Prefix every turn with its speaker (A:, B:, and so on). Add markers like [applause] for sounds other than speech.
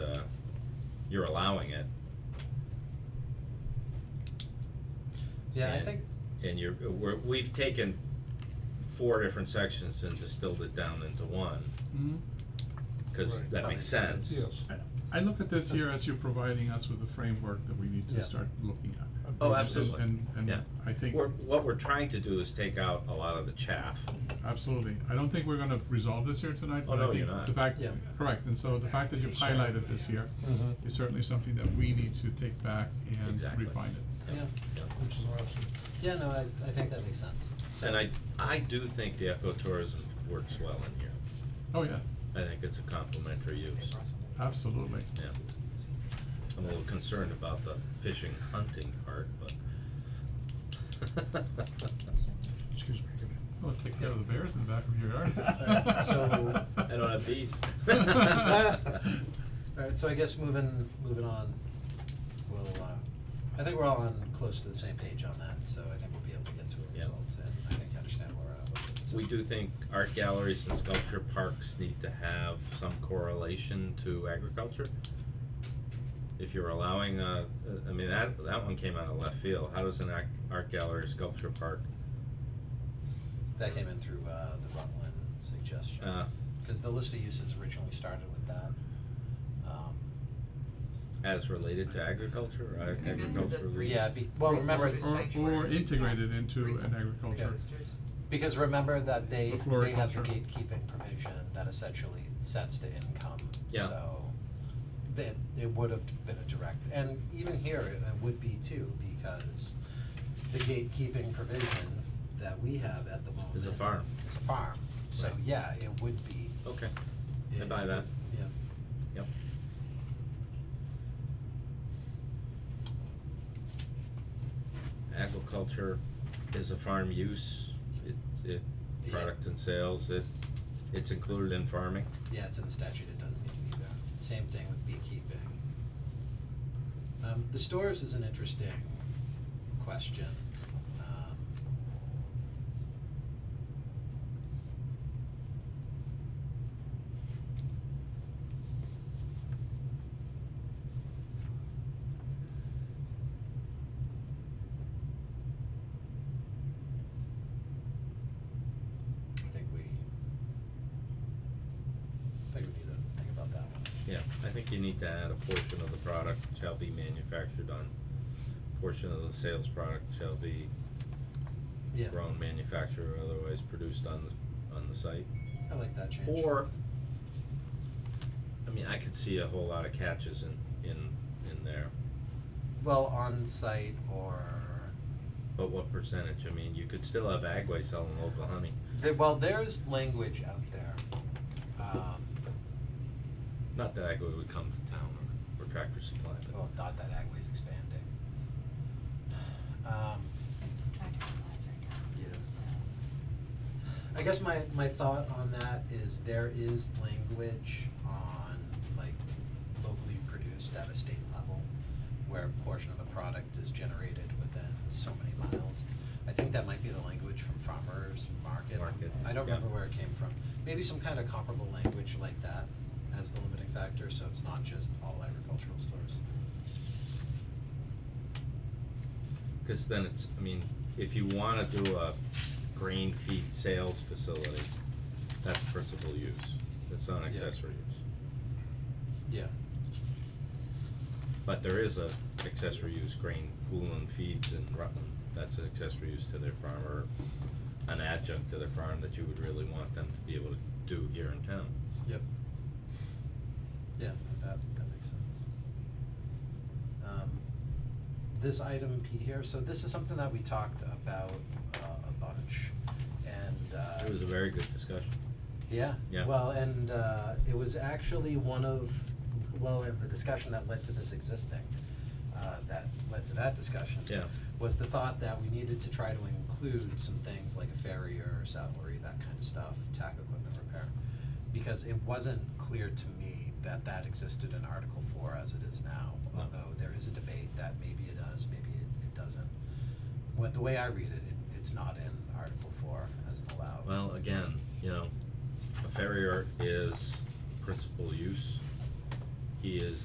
A: uh, you're allowing it,
B: Yeah, I
A: And-
B: think,
A: and you're, we're, we've taken four different sections and distilled it down into one,
C: Mhm.
A: cause
B: Right.
A: that makes
B: Obviously,
A: sense.
B: yes.
C: I look at this here as you're providing us with a framework that we need to
B: Yeah.
C: start looking at.
B: Oh,
C: And-
A: absolutely.
C: And,
A: Yeah.
C: and I think,
A: We're, what we're trying to do is take out a lot of the chaff,
C: absolutely, I don't think we're gonna resolve this here tonight,
A: Oh,
C: but
A: no,
C: I
A: you're
C: think
A: not.
C: the fact,
B: Yeah.
C: correct, and so the fact that you've highlighted this here
B: Mhm.
C: is certainly something that we need to take back and
A: Mm-hmm. Exactly.
C: refine it.
B: yeah,
A: yeah.
B: which is awesome. Yeah, no, I, I think that makes sense.
A: And I, I do think the ecotourism works well in here.
C: Oh, yeah,
A: I think it's a complementary use,
C: absolutely.
A: yeah. I'm a little concerned about the fishing hunting part, but. [laughs]
D: Excuse me. give me-
C: Well, take care of the bears in the back of your
B: Alright,
C: yard. [laughs]
B: so-
A: I don't have [laughs] bees.
B: Alright, so I guess moving, moving on, we'll, uh, I think we're all on, close to the same page on that, so I think we'll be able to get to a
A: Yeah.
B: result, and I think I understand where uh, we're at with it, so.
A: We do think art galleries and sculpture parks need to have some correlation to agriculture. If you're allowing, uh, uh, I mean, that, that one came out of left field, how does an act, art gallery, sculpture park,
B: That came in through, uh, the Rutland suggestion.
A: uh,
B: Cause the list of uses originally started with that, um,
A: as related to agriculture, or ag-
E: Maybe the
A: agricultural
E: three-
A: use?
B: yeah, be, well, remember,
E: Resources.
C: Or, or
E: Sanctuary.
C: integrated
E: Yeah.
C: into an
E: Resource.
C: agriculture.
B: Because remember that they,
C: The
B: they have the
C: floriculture.
B: gatekeeping provision that essentially sets the income,
A: Yeah.
B: so that it would have been a direct, and even here, it it would be too, because the gatekeeping provision that we have at the moment
A: Is a farm.
B: is a farm, so
A: Right.
B: yeah, it would be,
A: Okay, I
B: it,
A: buy that,
B: yeah,
A: yep. Agriculture is a farm use, it, it,
B: Yeah.
A: product and sales, it, it's included in farming.
B: yeah, it's in the statute, it doesn't need to be there, same thing with beekeeping. Um, the stores is an interesting question, um, I think we, I think we need to think about that one.
A: Yeah, I think you need to add a portion of the product shall be manufactured on, portion of the sales product shall be
B: Yeah,
A: grown, manufactured, or otherwise produced on the, on the site.
B: I like that change.
A: Or, I mean, I could see a whole lot of catches in, in, in there,
B: Well, on-site or,
A: but what percentage, I mean, you could still have Agway selling local honey.
B: there, well, there's language out there. Um,
A: Not that Agway would come to town or, or Tractor Supply, but,
B: well, oh, not that Agway's expanding. Um, I guess my, my thought on that is there is language on like locally produced at a state level where a portion of the product is generated within so many miles. I think that might be the language from farmers market.
A: Market,
B: I don't
A: yeah.
B: remember where it came from. Maybe some kind of comparable language like that as the limiting factor, so it's not just all agricultural stores.
A: cause then it's, I mean, if you wanna do a grain feed sales facility, that's principal use, it's not accessory use.
B: Yeah.
A: But there is a accessory use grain cooling feeds in Rutland, that's an accessory use to their farm or an adjunct to their farm that you would really want them to be able to do here in town.
B: Yep. Yeah, that, that makes sense. Um, this item P here, so this is something that we talked about, uh, a bunch, and, uh.
A: It was a very good discussion.
B: Yeah.
A: Yeah.
B: Well, and uh, it was actually one of, well, and the discussion that led to this existing, uh, that led to that discussion.
A: Yeah.
B: Was the thought that we needed to try to include some things like a farrier, saddlery, that kind of stuff, tack equipment repair. Because it wasn't clear to me that that existed in Article Four as it is now,
A: No.
B: although there is a debate that maybe it does, maybe it, it doesn't. What, the way I read it, it, it's not in Article Four as allowed.
A: Well, again, you know, a farrier is principal use. He is